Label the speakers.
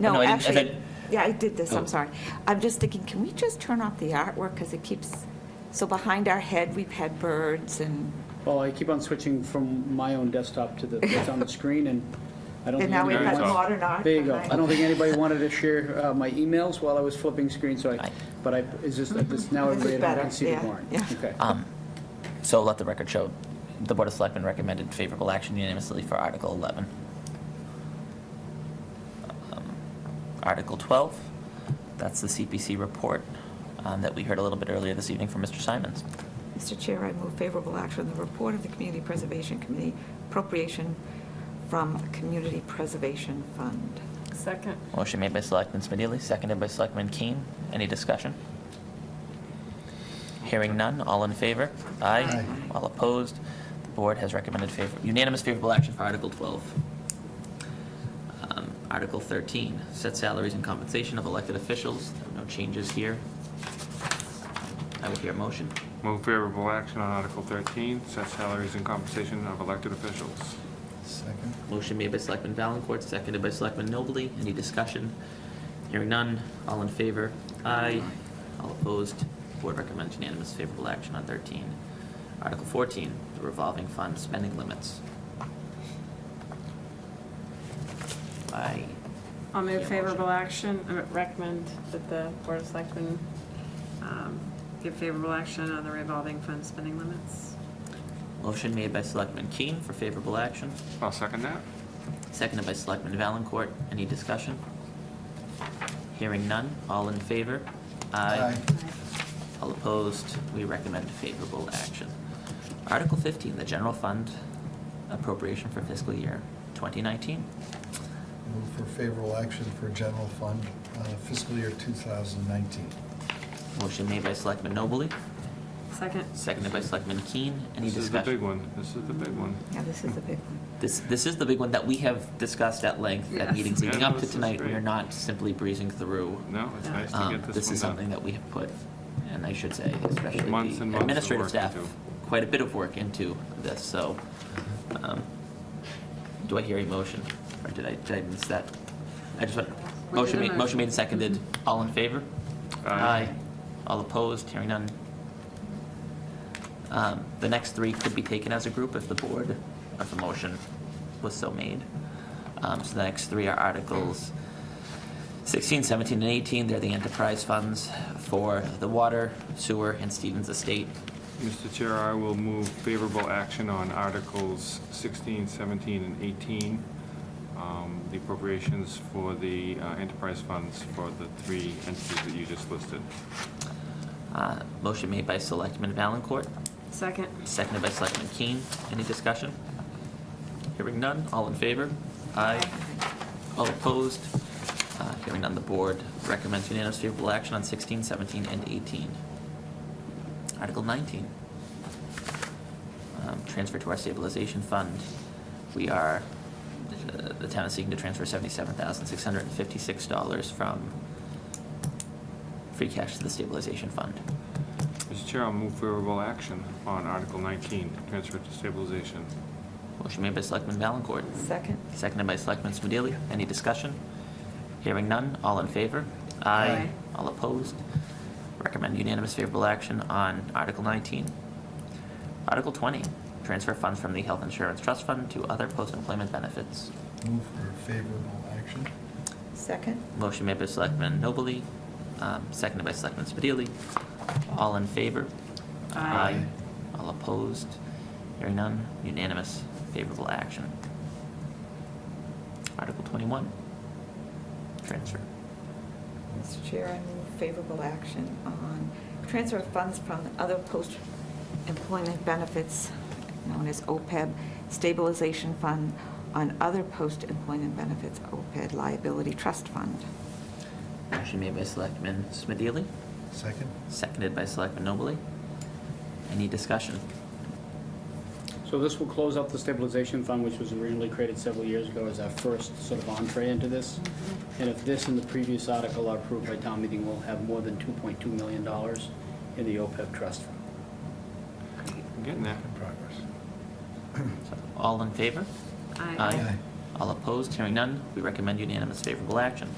Speaker 1: No,
Speaker 2: Oh, I didn't- I
Speaker 1: actually,
Speaker 2: said-
Speaker 1: yeah, I did this,
Speaker 2: Oh.
Speaker 1: I'm sorry. I'm just thinking, can we just turn off the artwork, because it keeps, so behind our head, we've had birds and,
Speaker 3: Well, I keep on switching from my own desktop to the, what's on the screen, and I don't
Speaker 1: and
Speaker 3: think
Speaker 1: now we've got
Speaker 2: Very
Speaker 3: anybody
Speaker 2: tough.
Speaker 3: wants...
Speaker 1: modern art
Speaker 3: There you go.
Speaker 1: behind.
Speaker 3: I don't think anybody wanted to share uh, my emails while I was flipping screens, so I, but I, is this, this- now
Speaker 1: This is
Speaker 3: everybody at home
Speaker 1: better,
Speaker 3: can see the
Speaker 1: yeah,
Speaker 3: warrant?
Speaker 1: yeah.
Speaker 3: Okay.
Speaker 2: Um, So let the record show, the Board of Selectmen recommended favorable action unanimously for Article 11. Um, Article 12, that's the CPC report um, that we heard a little bit earlier this evening from Mr. Simons.
Speaker 1: Mr. Chair, I move favorable action on the report of the Community Preservation Committee appropriation from Community Preservation Fund.
Speaker 4: Second.
Speaker 2: Motion made by Selectman Smedili, seconded by Selectman Keen. Any discussion? Hearing none, all in favor? Aye.
Speaker 4: Aye.
Speaker 2: All opposed? The board has recommended favor- unanimous favorable action for Article 12. Um, Article 13, set salaries and compensation of elected officials. There are no changes here. I will hear a motion.
Speaker 5: Move favorable action on Article 13, set salaries and compensation of elected officials.
Speaker 6: Second.
Speaker 2: Motion made by Selectman Valencourt, seconded by Selectman Nobley. Any discussion? Hearing none, all in favor? Aye. All opposed? Board recommends unanimous favorable action on 13. Article 14, the revolving fund spending limits. I,
Speaker 4: I'll
Speaker 2: Yeah,
Speaker 4: move
Speaker 2: motion.
Speaker 4: favorable action, I recommend that the Board of Selectmen um, give favorable action on the revolving fund spending limits.
Speaker 2: motion made by Selectman Keen for favorable action,
Speaker 5: I'll second that.
Speaker 2: seconded by Selectman Valencourt. Any discussion? Hearing none, all in favor? All opposed, we recommend favorable action. Article 15, the general fund appropriation for fiscal year 2019.
Speaker 6: Move for favorable action for general fund uh, fiscal year 2019.
Speaker 2: Motion made by Selectman Nobley,
Speaker 4: Second.
Speaker 2: seconded by Selectman Keen. Any
Speaker 5: This is the big
Speaker 2: discussion?
Speaker 5: one. This is the big one.
Speaker 1: Yeah, this is a big one.
Speaker 2: This, this is the big one that we have discussed at length at
Speaker 4: Yes.
Speaker 2: meetings leading
Speaker 5: Yeah,
Speaker 2: up to
Speaker 5: no, this is
Speaker 2: tonight. We
Speaker 5: great.
Speaker 2: are not simply breezing through.
Speaker 5: No, it's nice to
Speaker 2: Um,
Speaker 5: get this one done.
Speaker 2: This is something that we have put, and I should say, especially
Speaker 5: Months and months
Speaker 2: the
Speaker 5: of
Speaker 2: administrative
Speaker 5: work
Speaker 2: staff,
Speaker 5: into.
Speaker 2: quite a bit of work into this, so. um, Do I hear a motion? Or did I, did I miss that? I just want,
Speaker 4: did
Speaker 2: motion
Speaker 4: a
Speaker 2: made, motion
Speaker 4: motion.
Speaker 2: made and seconded. All in favor?
Speaker 5: Aye.
Speaker 2: All opposed? Hearing none. Um, The next three could be taken as a group if the board, if the motion was so made. Um, So the next three are Articles 16, 17, and 18. They're the enterprise funds for the water, sewer, and Stevens Estate.
Speaker 5: Mr. Chair, I will move favorable action on Articles 16, 17, and 18, um, the appropriations for the uh, enterprise funds for the three entities that you just listed.
Speaker 2: Uh, Motion made by Selectman Valencourt,
Speaker 4: Second.
Speaker 2: seconded by Selectman Keen. Any discussion? Hearing none, all in favor? Aye. All opposed? Uh, Hearing none, the board recommends unanimous favorable action on 16, 17, and 18. Article 19, um, transfer to our stabilization fund. We are, uh, the town is seeking to transfer $77,656 from free cash to the stabilization fund.
Speaker 5: Mr. Chair, I'll move favorable action on Article 19, transfer to stabilization.
Speaker 2: Motion made by Selectman Valencourt.
Speaker 1: Second?
Speaker 2: Seconded by Selectman Smedili. Any discussion? Hearing none, all in favor?
Speaker 4: Aye.
Speaker 2: All opposed? Recommend unanimous favorable action on Article 19. Article 20, transfer funds from the Health Insurance Trust Fund to other post-employment benefits.
Speaker 6: Move for favorable action.
Speaker 1: Second?
Speaker 2: Motion made by Selectman Nobley, um, seconded by Selectman Spadili. All in favor?
Speaker 4: Aye.
Speaker 2: All opposed? Hearing none, unanimous, favorable action. Article 21, transfer.
Speaker 1: Mr. Chair, I move favorable action on transfer of funds from other post-employment benefits, known as OPEB, stabilization fund on other post-employment benefits, OPEB liability trust fund.
Speaker 2: Motion made by Selectman Smadili,
Speaker 6: Second.
Speaker 2: seconded by Selectman Nobley. Any discussion?
Speaker 3: So this will close out the stabilization fund, which was originally created several years ago as our first sort of entree into this. And if this and the previous article are approved by town meeting, we'll have more than $2.2 million in the OPEB trust fund.
Speaker 5: I'm getting there.
Speaker 6: In progress.
Speaker 2: So, All in favor?
Speaker 4: Aye.
Speaker 6: Aye.
Speaker 2: All opposed? Hearing none, we recommend unanimous favorable action.